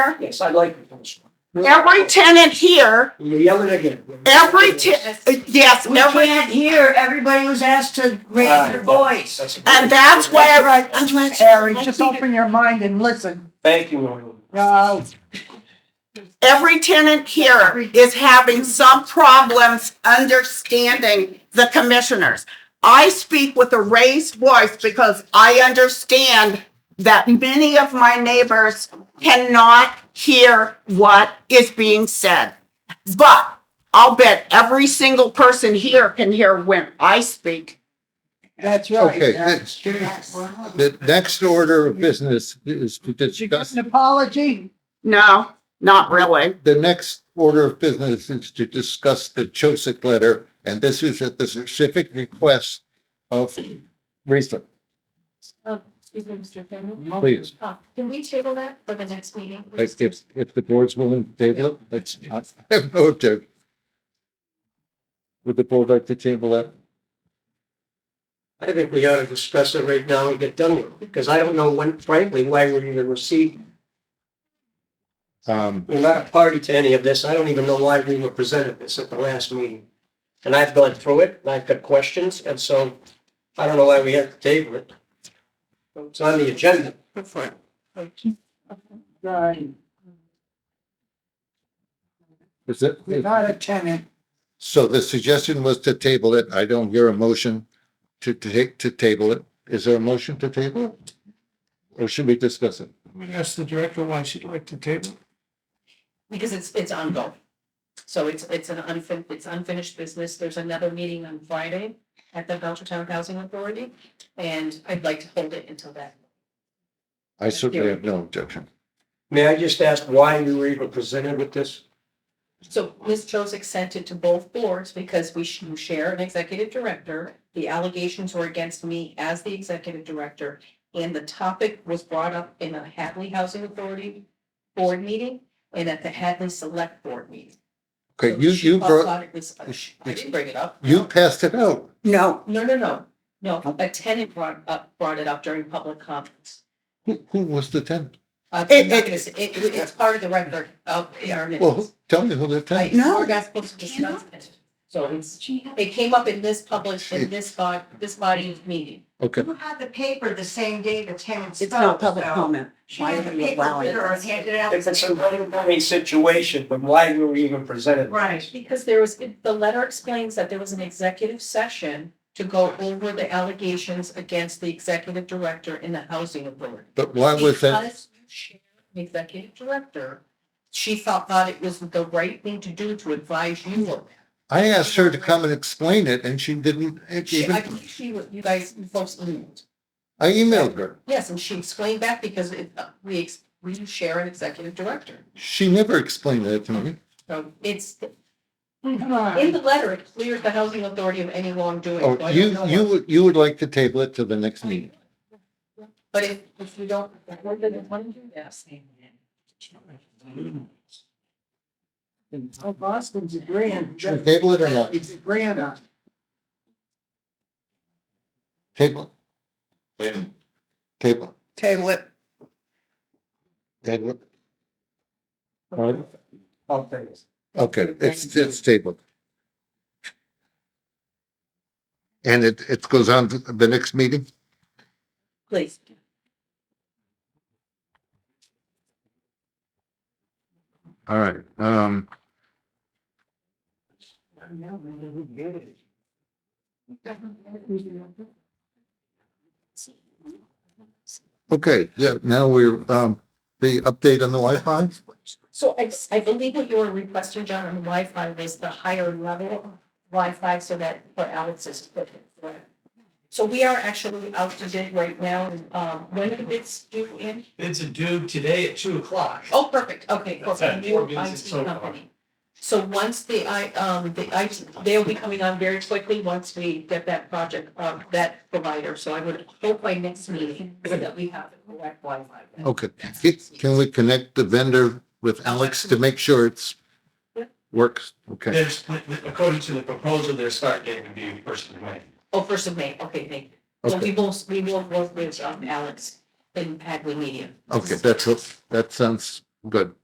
Yes, I like the first one. Every tenant here, You yell it again. every ten, yes, We every, can't hear. Everybody was asked to raise their voice. and that's where I, I'm like, Harry, just open your mind and listen. Thank you, Lord. Uh, every tenant here is having some problems understanding the commissioners. I speak with a raised voice because I understand that many of my neighbors cannot hear what is being said. But I'll bet every single person here can hear when I speak. that's right. Okay, Uh, next, the next order of business is to Did you get discuss, an apology? No, not really. the next order of business is to discuss the Chosic letter, and this is at the specific request of Risa, Oh, Excuse me, Mr. Chairman. please. Uh, Can we table that for the next meeting? Like if, if the board's willing to table it, let's, I have no objection. Would the board like to table that? I think we ought to discuss it right now and get done with it, because I don't know when, frankly, why we're even received. Um, We're not a party to any of this. I don't even know why we were presented this at the last meeting. And I've gone through it, and I've got questions, and so I don't know why we have to table it. It's on the agenda. Right. is it? You're not a tenant. So the suggestion was to table it. I don't hear a motion to, to take, to table it. Is there a motion to table it? Or should we discuss it? I'm gonna ask the director why she'd like to table. Because it's, it's ongoing. So it's, it's an unfin, it's unfinished business. There's another meeting on Friday at the Belchertown Housing Authority. And I'd like to hold it until that. I certainly have no objection. May I just ask why we were even presented with this? So Ms. Joseph sent it to both boards because we sh- you share an executive director. The allegations were against me as the executive director. And the topic was brought up in a Hadley Housing Authority board meeting and at the Hadley Select Board meeting. Okay, So you, she you brought, thought it was- I didn't bring it up. you passed it out. No, No, no, no, no, a tenant brought up, brought it up during public comments. Who, who was the tenant? Uh, It- no, it- it's, it, it's part of the record of our Eh, Well, minutes. who- tell me who the tenant. No. We're not supposed to discuss it, so it's, it came up in this public, in this body, this body's meeting. Okay, You had the paper the same day the tenants. it's not spoke, public so comment. She Why had are the you paper allowing with her and it? handed out. If it's a money situation, then why were we even presented? Right. Because there was, the letter explains that there was an executive session to go over the allegations against the executive director in the housing authority. but why was that? Because you share an Executive director, she thought that it was the right thing to do to advise you on that. I asked her to come and explain it and she didn't She, I even, think she, was- you guys, you folks emailed. I emailed her. Yes, and she explained back because it, uh, we, ex- we share an executive director. She never explained that to me. So it's, Come in on. the letter, it clears the housing authority of any wrongdoing. so Oh, I don't you, know you, what- would you would like to table it to the next meeting. But if, if you don't, if we're gonna want to do that, Oh, Boston's agreeing. Should we Table it or not? He's agreeing on. it. Table. Table. Table it. Table. I'll tell you. Okay, it's, it's tabled. And it, it goes on to the next meeting? please. All right, um, okay, yeah, now we're, um, the update on the Wi-Fi? So I, I believe what you were requesting, John, on Wi-Fi was the higher level Wi-Fi so that for Alex's equipment. correct? So we are actually out to bid right now, and, um, when are the bids due in? It's a due today at two o'clock. Oh, perfect, okay, for That's the it, new four bids IT so far. company. So once the I, um, the I, they'll be coming on very quickly once we get that project, uh, that provider, so I would hope by next meeting that we have the correct Wi-Fi. Okay, can we connect the vendor with Alex to make sure it's works? Okay, There's, according to the proposal, their start date would be first of May. Oh, first of May, okay, thank you. So okay, we will, we will work with um, Alex and Hadley Media. okay, that's, that sounds Good.